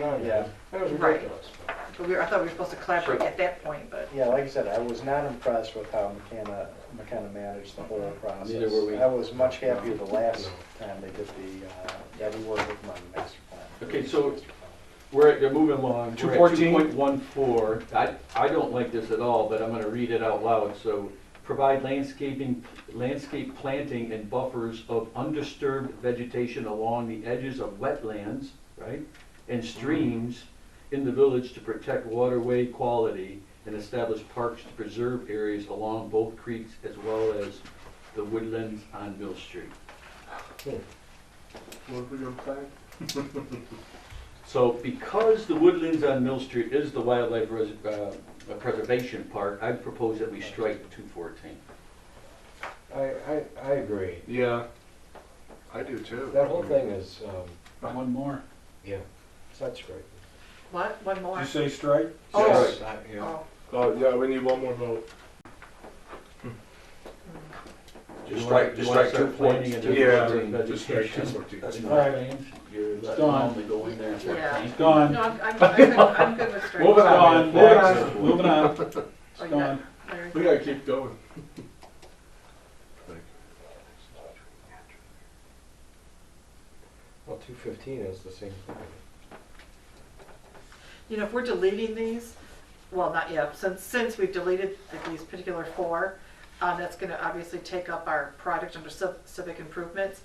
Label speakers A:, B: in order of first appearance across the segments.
A: yeah, it was
B: Right.
A: ridiculous.
B: But we, were- I thought we were supposed to collaborate at that point, but.
A: Yeah, like I said, I was not impressed with how McKenna, McKenna managed the whole process.
C: Neither were we.
A: I was much happier the last time they did the, uh, yeah, we worked with them on the master plan.
C: Okay, so- We're, they're moving along.
D: 214.
C: Two point one four. I, I don't like this at all, but I'm gonna read it out loud, so. Provide landscaping, landscape planting and buffers of undisturbed vegetation along the edges of wetlands, right? And streams in the village to protect waterway quality and establish parks to preserve areas along both creeks as well as the woodlands on Mill Street.
E: What we gonna plan?
C: So because the woodlands on Mill Street is the wildlife res- uh, preservation park, I propose that we strike two fourteen.
F: I, I, I agree.
E: Yeah. I do too.
F: That whole thing is, um,
D: One more.
F: yeah, it's not straight.
B: What? One more?
D: Did you say strike?
B: Oh.
F: It's not, you know,
B: Oh,
E: Oh, yeah, we need one more vote.
C: Just strike, just strike two points.
E: Yeah, just strike two
C: That's
E: fourteen.
D: All right.
C: You're letting
D: Done.
C: only go in there.
B: Yeah.
C: It's
D: Gone.
B: No, I'm, I'm, I'm good- I'm good with straight.
D: Moving on,
C: Moving on.
D: next, moving on. It's
B: Oh, you
D: gone.
B: got- Larry?
E: We gotta keep going.
F: well, two fifteen is the same thing.
B: You know, if we're deleting these, well, not yet, since, since we've deleted th- these particular four, uh, that's gonna obviously take up our project under civ- civic improvements.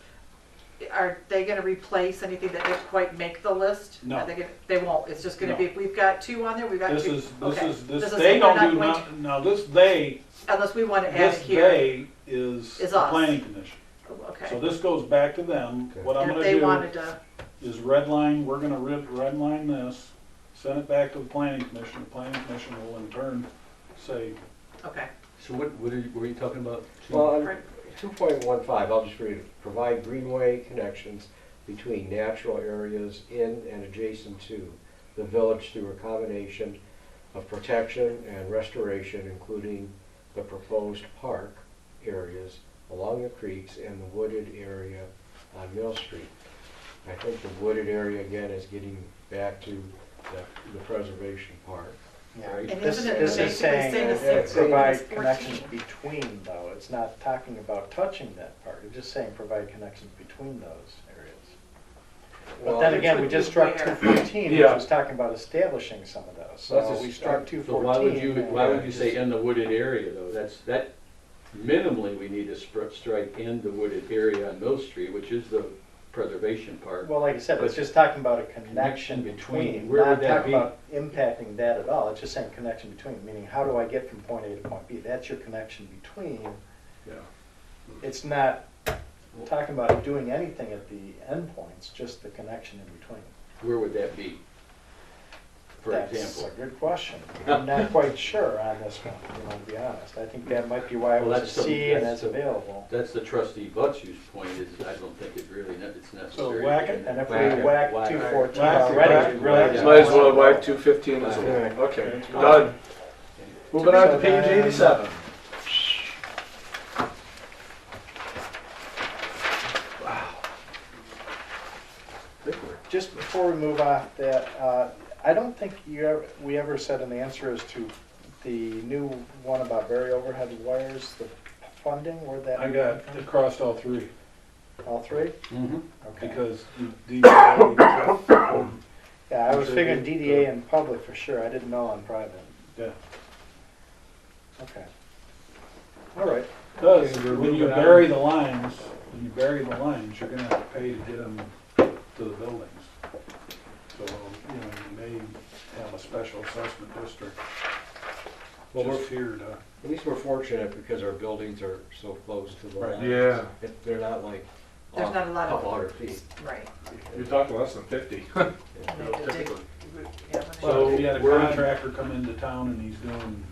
B: Are they gonna replace anything that didn't quite make the list?
D: No.
B: Are they gonna- They won't, it's just gonna
D: No.
B: be, we've got two on there, we've got
D: This
B: two.
D: is, this
B: Okay.
D: is, this,
B: is-
D: they
B: we're
D: don't
B: going
D: do, no- now, this they,
B: to- Unless we wanna add
D: this
B: it here.
D: they is
B: Is
D: the
B: us.
D: planning commission. So
B: Okay.
D: this goes back to them.
F: Okay.
D: What I'm
B: And if
D: gonna
B: they
D: do
B: wanted to,
D: is redline, we're gonna red, redline this, send it back to the planning commission. The planning commission will in turn say,
B: okay.
C: So what, what are you, were you talking about?
F: Well, two point one five, I'll just read it, provide greenway connections between natural areas in and adjacent to the village through a combination of protection and restoration, including the proposed park areas along the creeks and the wooded area on Mill Street. I think the wooded area again is getting back to the, the preservation part.
A: Yeah,
C: And
A: this,
B: isn't it
A: this is
B: basically saying
A: saying
B: the
A: it-
B: same
A: it
B: thing as
A: provide
B: 14?
A: connections between though, it's not talking about touching that part, it's just saying provide connections between those areas. But
F: Well,
A: then
B: Which
A: again, we
B: would
A: just
B: be
A: struck two
B: where?
A: fourteen, which
E: Yeah.
A: was talking about establishing some of those,
F: That's
A: so
F: a-
A: we struck two
C: So
A: fourteen.
C: why would you, why would you say in the wooded area though? That's, that, minimally, we need to spr- strike in the wooded area on Mill Street, which is the preservation park.
A: Well, like I said, it's just talking about a connection
C: Connection between.
A: between,
C: Where
A: not
C: would that
A: talking
C: be?
A: about impacting that at all, it's just saying connection between, meaning how do I get from point A to point B? That's your connection between.
E: Yeah.
A: It's not talking about doing anything at the endpoints, just the connection in between.
C: Where would that be? For
A: That's
C: example.
A: a good question. I'm not quite sure on this one, you know, to be honest. I think that might be why it
C: Well,
A: was a
C: that's the-
A: C and
C: that's
A: that's
C: the-
A: available.
C: That's the trustee Butch's point is I don't think it really, ne- it's necessary.
D: whack it,
A: And if
C: Whack
A: we
C: it,
A: whack
C: whack
A: two
C: it.
A: fourteen
D: Whack it, whack
A: already,
D: it,
A: we really.
C: whack it.
A: just
E: Might as well
A: want-
E: wipe two fifteen as well. Okay, done. Moving on to page eighty-seven.
A: Just before we move off that, uh, I don't think you, ever- we ever said an answer as to the new one about very overhead wires, the funding, where that.
D: I got, it crossed all three.
A: All three?
C: Mhm.
A: Okay.
D: Because the DPW
A: Yeah, I was figuring DDA in public for sure, I didn't know on private.
D: Yeah.
A: Okay. All right,
D: Because
C: Okay, we're
D: when you
C: moving on.
D: bury the lines, when you bury the lines, you're gonna have to pay to get them to the buildings. So, you know, you may have a special assessment district
F: Well, we're-
D: just here to.
F: At least we're fortunate because our buildings are so close to the
D: Right.
F: line.
E: Yeah,
F: If They're not like.
B: There's
F: off
B: not a lot of-
F: Couple hundred feet.
B: Right.
E: you're talking less than fifty.
B: And they did dig- yeah, when they-
D: So
C: So
D: if you had a
C: we're-
D: contractor come into town and he's doing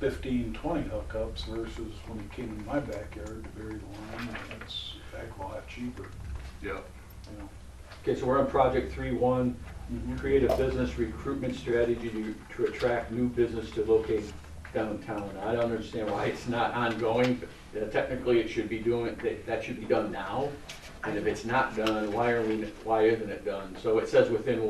D: fifteen, twenty hookups versus when he came in my backyard to bury the line, that's a heck of a lot cheaper,
E: Yeah.
D: you know.
C: Okay, so we're on project three one, create a business recruitment strategy to, to attract new business to locate downtown. I don't understand why it's not ongoing, but uh, technically it should be doing, that, that should be done now. And if it's not done, why are we, why isn't it done? So it says within